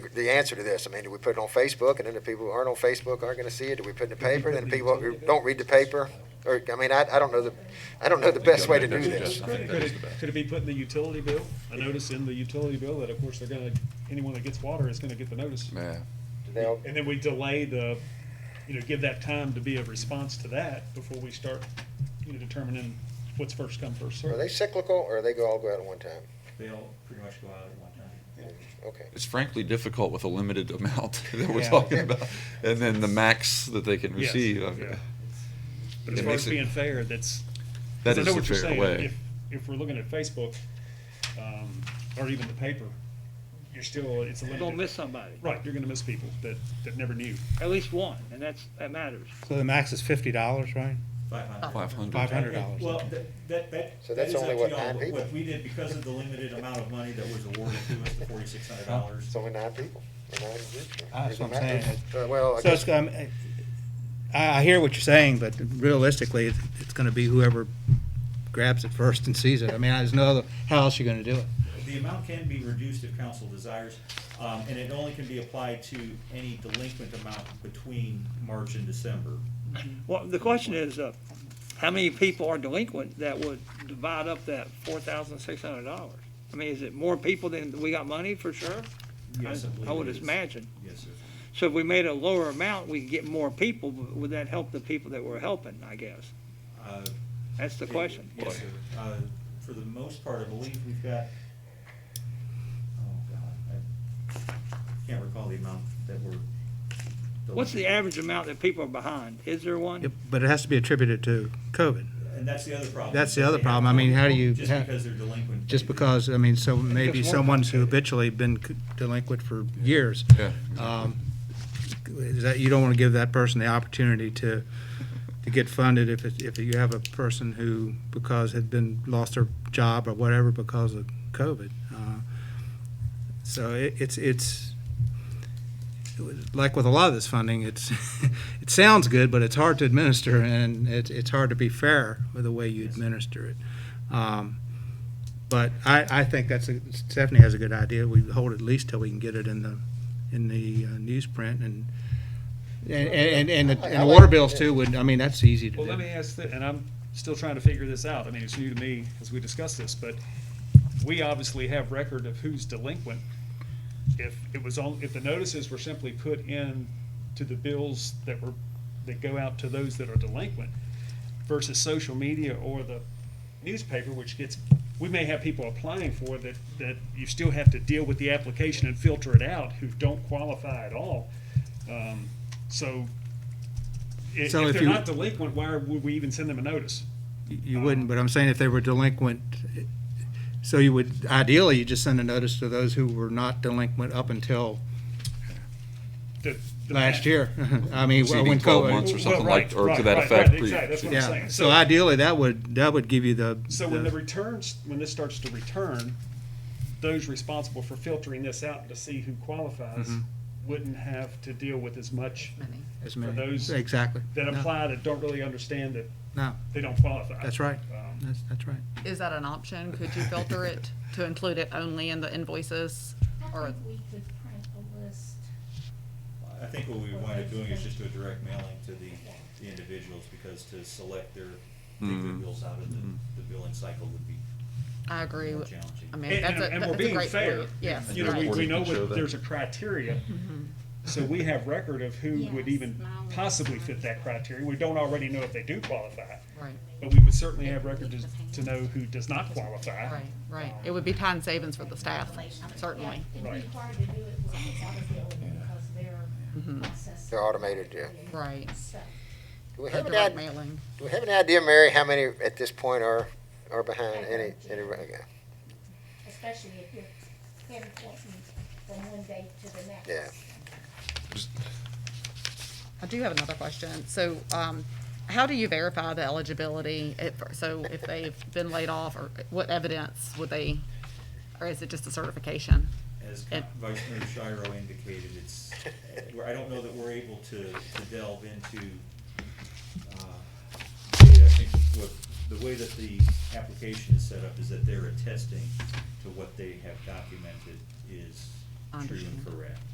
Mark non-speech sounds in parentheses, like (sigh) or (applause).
the answer to this? I mean, do we put it on Facebook, and then the people who aren't on Facebook aren't gonna see it? Do we put it in the paper, and then the people who don't read the paper? Or, I mean, I, I don't know the, I don't know the best way to do this. Could it, could it- could it be put in the utility bill? I notice in the utility bill that of course they're gonna, anyone that gets water is gonna get the notice. Yeah, Now, And then we delay the, you know, give that time to be a response to that before we start, you know, determining what's first come, first Are served. they cyclical, or are they go all go out at one time? They'll pretty much go out at one time. Okay. it's frankly difficult with a limited amount (laughs) that we're Yeah. talking about, and then the max that they can Yes, receive. yeah. Okay. But as uh, It far makes as it- being fair, that's, That 'cause I is know the what you're fair saying. way. If, if we're looking at Facebook, um, or even the paper, you're still, it's a You're limited. gonna miss somebody, Right, you're gonna miss people that, that never knew. at least one, and that's, that matters. So the max is fifty dollars, right? Five hundred. Five hundred. Five hundred dollars. Well, that, that, that. So that's that is up only, to what, y'all, nine but What people? we did, because of the limited amount of money that was awarded to us, the forty-six hundred dollars, It's only nine people. or nine groups, or- Ah, that's what I'm doesn't matter. Uh, Well, I So it's, guess, um, I, I hear what you're saying, but realistically, it's, it's gonna be whoever grabs it first and sees it. I mean, there's no other, how else you gonna do it? the amount can be reduced if council desires, um, and it only can be applied to any delinquent amount between March and December. Well, the question is, uh, how many people are delinquent that would divide up that four thousand six hundred dollars? I mean, is it more people than we got money for sure? Yes, I believe I would it is. imagine. Yes, sir. So if we made a lower amount, we could get more people, but would that help the people that we're helping, I guess? Uh, That's the it- question. Yes, sir. Uh, for the most part, I believe we've got, oh, God, I can't recall the amount that we're. What's the delinquent. average amount that people are behind? Is there one? Yep, But it has to be attributed to COVID, And that's the other problem. That's the They other have problem. I mean, how do delinquent you- Just how- because they're delinquent. just they- because, I mean, so maybe more someone's who habitually been c- delinquent for years. Yeah. Um, Is that, you don't wanna give that person the opportunity to, to get funded if it, if you have a person who, because had been, lost their job or whatever because of COVID. Uh, So it, it's, it's, like with a lot of this funding, it's, (laughs) it sounds good, but it's hard to administer and it's, it's hard to be fair with the way you administer it. Um, But I, I think that's, a- Stephanie has a good idea. We hold at least till we can get it in the, in the uh, newsprint and, and, and, and the- and the water bills too would, I mean, that's easy to do. Well, let me ask, thi- and I'm still trying to figure this out, I mean, it's new to me as we discuss this, but we obviously have record of who's delinquent. If it was on, if the notices were simply put in to the bills that were, that go out to those that are delinquent versus social media or the newspaper, which gets, we may have people applying for that, that you still have to deal with the application and filter it out who don't qualify at all. Um, So i- if So if they're you- not delinquent, why would we even send them a notice? You wouldn't, but I'm saying if they were delinquent, so you would, ideally, you just send a notice to those who were not delinquent up until The- the- last year. (laughs) I mean, Exceeding when 12 COVID. months or Well, something right, like, or to right, that right, effect. right, exactly, that's what I'm Yeah, saying. so ideally, that would, that would give you the. So when the the- returns, when this starts to return, those responsible for filtering this out to see who qualifies Mm-hmm. wouldn't have to deal with as much as for many- those Exactly. that No, apply that don't really understand that No, they don't qualify. that's right. Um, That's, that's right. Is that an option? Could you filter it to include it only in the invoices? I Or- think we could print a list. I think what we wind up doing is just do a direct mailing to the, the individuals, because to select their, take Mm. their bills out of the, the billing cycle would be I agree. more with- challenging. I mean, And, that's a, and- and we're that's a being great fair. point. Yes, You know, we, right. Mm-hmm. we know Reporting can show what, that. there's a criteria, so we have record of who would Yes, even mileage. possibly fit that criteria. We don't already know if they do qualify, Right, but we would certainly have record to- to know who does not qualify. right, right. It would be time savings for the staff, certainly. Yeah, Right. It'd be hard to do it without a bill because they're Mm-hmm. processing they're automated, yeah. Right. stuff. Do we The have an direct idea, mailing. do we have an idea, Mary, how many at this point are, are behind any, any, okay. Especially if you're pinpointing from one day to the next. Yeah. I do have another question. So, um, how do you verify the eligibility? If- So if they've been laid off or what evidence would they, or is it just a certification? As And- Vice Mayor Shiro indicated, it's, we're- I don't know that we're able to, to delve into, uh, data. I think what, the way that the application is set up is that they're attesting to what they have documented is true Understand. and correct.